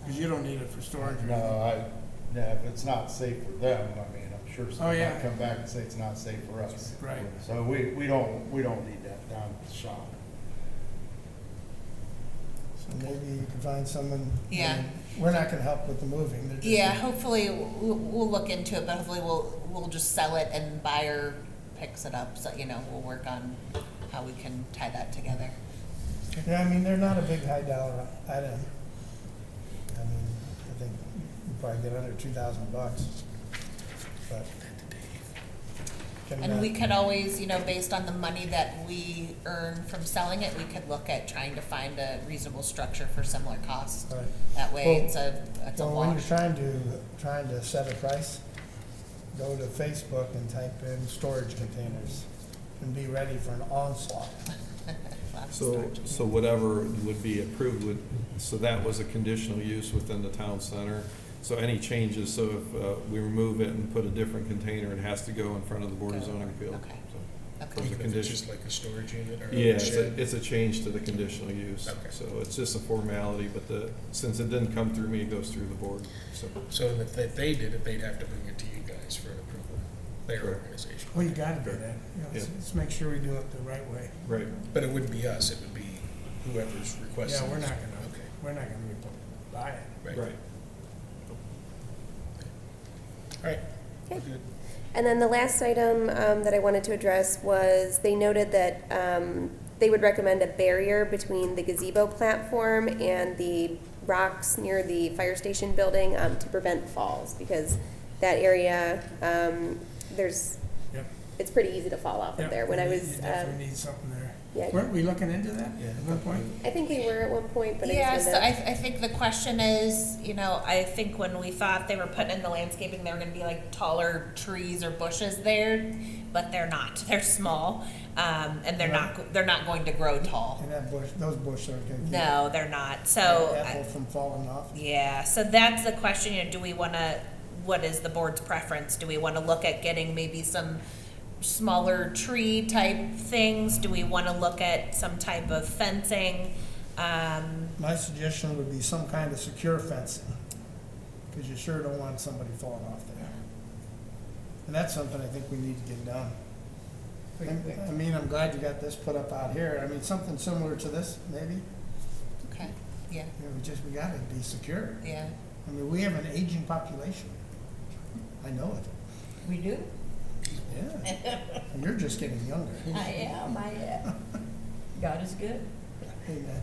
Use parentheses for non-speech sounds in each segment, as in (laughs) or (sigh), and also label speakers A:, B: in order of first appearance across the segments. A: Because you don't need it for storage. or
B: No,
A: anything.
B: I, yeah, if it's not safe for them, I mean, I'm sure
A: Oh,
B: someone
A: yeah.
B: might come back and say it's not safe for us.
A: Right.
B: So we, we don't, we don't need that down at the shop.
C: So maybe you can find someone.
D: Yeah.
C: We're not gonna help with the moving. they're just-
D: Yeah, hopefully, we'll, we'll look into it, but hopefully we'll, we'll just sell it and buyer picks it up, so, you know, we'll work on how we can tie that together.
C: Yeah, I mean, they're not a big high dollar item. I mean, I think you probably get under two thousand bucks, but. Can
D: And
C: that-
D: we could always, you know, based on the money that we earn from selling it, we could look at trying to find a reasonable structure for similar costs.
C: Right.
D: That way,
C: Well-
D: it's a, it's a
C: Well, when you're
D: wash.
C: trying to, trying to set a price, go to Facebook and type in storage containers and be ready for an onslaught.
D: Lots of
E: So,
D: storage.
E: so whatever would be approved would, so that was a conditional use within the town center. So any changes, so if uh, we remove it and put a different container, it has to go in front of the Board of Zoning Appeals.
D: Okay.
E: So
D: Okay.
E: There's a
F: Even if it's
E: condition.
F: just like a storage unit or
E: Yeah,
F: a
E: it's a,
F: shed?
E: it's a change to the conditional use.
F: Okay.
E: So it's just a formality, but the, since it didn't come through me, it goes through the board, so.
F: So if they- they did it, they'd have to bring it to you guys for an approval, their
E: Correct.
F: organization.
A: Well, you gotta do that. You know, Let's
E: Yeah.
A: let's make sure we do it the right way.
E: Right.
F: But it wouldn't be us, it would be whoever's requesting.
A: Yeah, we're
F: this.
A: not gonna,
F: Okay,
A: we're not gonna be buy it.
F: right, all right. we're good.
G: And then the last item um, that I wanted to address was they noted that um, they would recommend a barrier between the gazebo platform and the rocks near the fire station building um, to prevent falls because that area, um, there's,
A: Yep.
G: it's pretty easy to fall off
A: Yep,
G: of there. When I
A: you-
G: was,
A: You
G: um,
A: definitely need something there.
G: yeah,
A: Weren't we looking into that at one point?
G: I think we were at one point, but I
D: Yeah,
G: just
D: so
G: wanted to-
D: I, I think the question is, you know, I think when we thought they were putting in the landscaping, there were gonna be like taller trees or bushes there, but they're not, (laughs) they're small, um, and they're not, they're not going to grow tall.
C: And that bush, those bushes aren't gonna keep.
D: No, they're not, so.
C: that
D: I-
C: Apple from falling off.
D: yeah, so that's the question, you know, do we wanna, what is the board's preference? Do we wanna look at getting maybe some smaller tree type things? Do we wanna look at some type of fencing? Um,
C: My suggestion would be some kind of secure fencing, because you sure don't want somebody falling off there. And that's something I think we need to get done. And, I mean, I'm glad you got this put up out here, I mean, something similar to this, maybe, you
D: okay, yeah,
C: know, we just, we gotta be secure.
D: yeah.
C: I mean, we have an aging population, I know it,
D: We do?
C: (laughs) yeah. And you're just getting younger.
H: I am, I am. God is good.
C: Amen.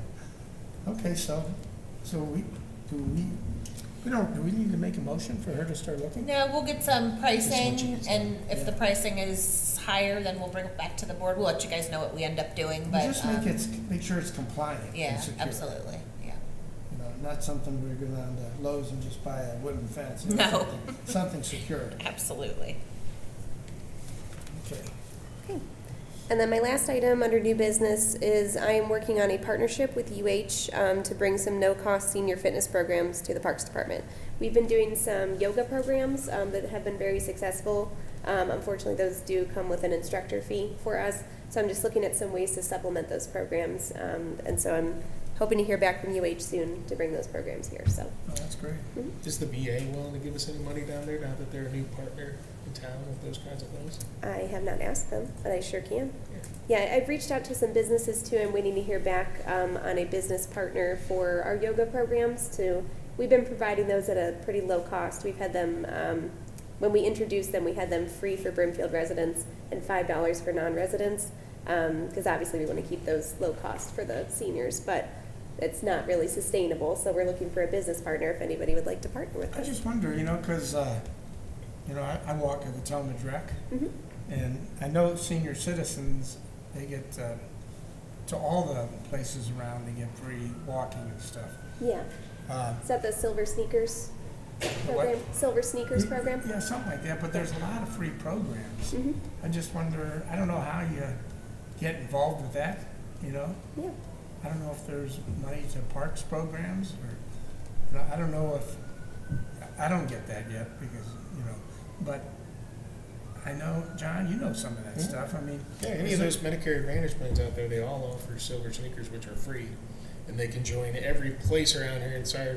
C: Okay, so, so we, do we, we don't, do we need to make a motion for her to start looking?
D: No, we'll get some pricing,
F: changes.
D: and if the pricing is higher, then we'll bring it back to the board. We'll let you guys know what we end up doing,
C: Well,
D: but.
C: Just make
D: um,
C: it, make sure it's compliant and
D: Yeah,
C: secure.
D: absolutely, yeah.
C: You know, not something where you go down to Lowe's and just buy a wooden fence. It's
D: No.
C: something- Something secure,
D: Absolutely.
C: okay.
G: And then my last item under new business is I am working on a partnership with UH um, to bring some no-cost senior fitness programs to the Parks Department. We've been doing some yoga programs um, that have been very successful. Um, Unfortunately, those do come with an instructor fee for us, so I'm just looking at some ways to supplement those programs. um, And so I'm hoping to hear back from UH soon to bring those programs here, so.
C: Oh, that's great.
F: Is the VA willing to give us any money down there now that they're a new partner in town with those kinds of things?
G: I have not asked them, but I sure can.
F: Yeah.
G: Yeah, I've reached out to some businesses too. I'm waiting to hear back um, on a business partner for our yoga programs too. We've been providing those at a pretty low cost. We've had them, um, when we introduced them, we had them free for Brimfield residents and $5 for non-residents. Because obviously we want to keep those low cost for the seniors, but it's not really sustainable. So we're looking for a business partner if anybody would like to partner with
A: I
G: us.
A: just wonder, you know, because, you know, I, I walk at the Talmud Rec,
G: Mhm.
A: and I know senior citizens, they get, uh, to all the places around, they get free walking and stuff.
G: Yeah,
A: Uh,
G: is that the Silver Sneakers
A: what?
G: program? Silver Sneakers program?
A: Yeah, something like that, but there's a lot of free programs.
G: Mhm.
A: I just wonder, I don't know how you get involved with that, you know?
G: Yeah.
A: I don't know if there's money to parks programs or, you know, I don't know if, I don't get that yet because, you know, but I know, John, you know some of that
F: Yeah.
A: stuff. I mean,
F: Yeah, any of those Medicare Advantage plans out there, they all offer silver sneakers, which are free, and they can join every place around here in Sire